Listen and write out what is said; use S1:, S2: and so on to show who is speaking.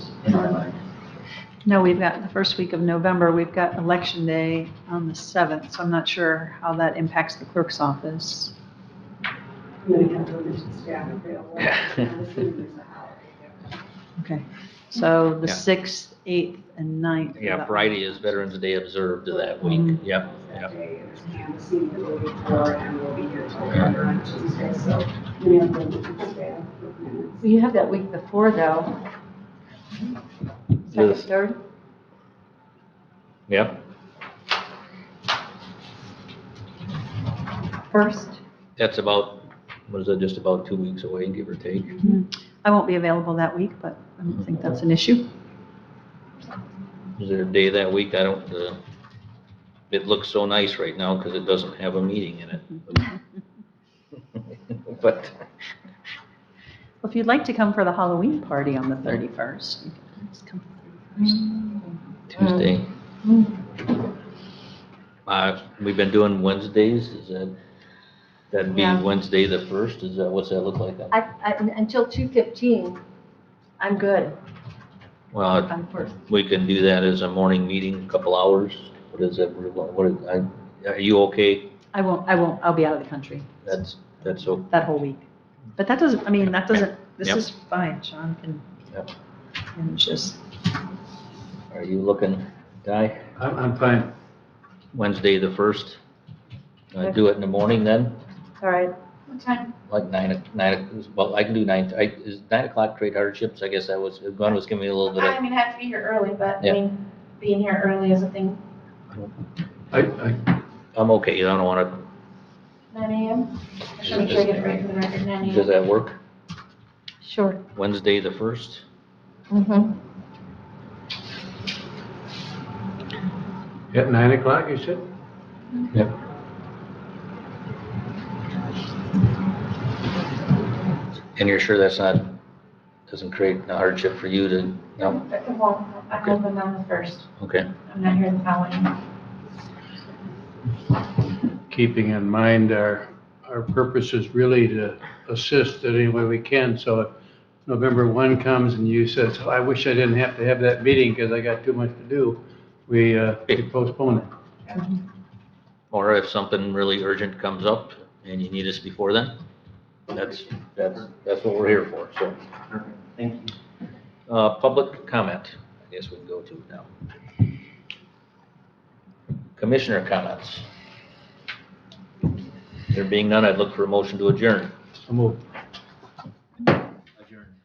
S1: in our mind.
S2: No, we've got, the first week of November, we've got Election Day on the 7th, so I'm not sure how that impacts the clerk's office.
S3: Then we have to reach the staff available. I'm assuming it's a holiday.
S2: Okay. So the
S4: Yeah.
S2: 6th, 8th, and 9th. for
S4: Yeah,
S2: that
S4: Friday is Veterans Day observed that week.
S2: Mhm.
S4: Yep,
S3: That
S4: yep.
S3: day is Kansas City, the day before, and we'll be here till later on Tuesday, so we have to reach the staff. with minutes.
S5: You have that week before though. Second,
S4: Yes.
S5: third?
S4: Yep.
S5: First?
S4: That's about, what is that, just about two weeks away, give or take?
S2: I won't be available that week, but I don't think that's an issue.
S4: Is there a day that week? I don't, uh, it looks so nice right now because it doesn't have a meeting in it. But,
S2: Well, If you'd like to come for the Halloween party on the 31st, you can always come.
S4: Tuesday. Uh, we've been doing Wednesdays, is that, that'd be
S5: Yeah.
S4: Wednesday the first, is that, what's that look like?
S5: I, I, until two fifteen, I'm good
S4: Well,
S5: on first.
S4: we can do that as a morning meeting, a couple hours, what is that, what, is- I- are you okay?
S2: I won't, I won't, I'll be out of the country
S4: That's, that's, o-
S2: that whole week. But that doesn't, I mean, that doesn't, this
S4: Yep.
S2: is fine, Sean can,
S4: Yep.
S2: and just,
S4: are you looking, Di?
S6: I'm, I'm fine.
S4: Wednesday the first? I do it in the morning then,
S5: All right.
S3: What time?
S4: like nine, o- nine, o- well, I can do nine, I, is nine o'clock trade hardships, I guess I was, Glenn was giving me a little bit
S7: I
S4: of,
S7: mean, I have to be here early, but
S4: Yeah.
S7: I mean, being here early is a thing.
S6: I, I,
S4: I'm okay, I don't wanna,
S7: Nine AM? I should make sure I get it right for the record, nine
S4: does
S7: AM.
S4: that work?
S5: Sure.
S4: Wednesday the first?
S5: Mm-hmm.
S6: at nine o'clock, you said?
S4: And you're sure that's not, doesn't create a hardship for you to, no,
S7: Well, I'm open on the first.
S4: okay.
S7: I'm not here the following.
S6: Keeping in mind our, our purpose is really to assist in any way we can. So if November one comes and you says, "Oh, I wish I didn't have to have that meeting because I got too much to do, we, uh, we postpone it.
S4: Or if something really urgent comes up and you need us before then, that's, that's, that's what we're here for, so.
S1: Thank you.
S4: Uh, public comment, I guess we can go to now. Commissioner comments. There being none, I'd look for a motion to adjourn.
S6: So move.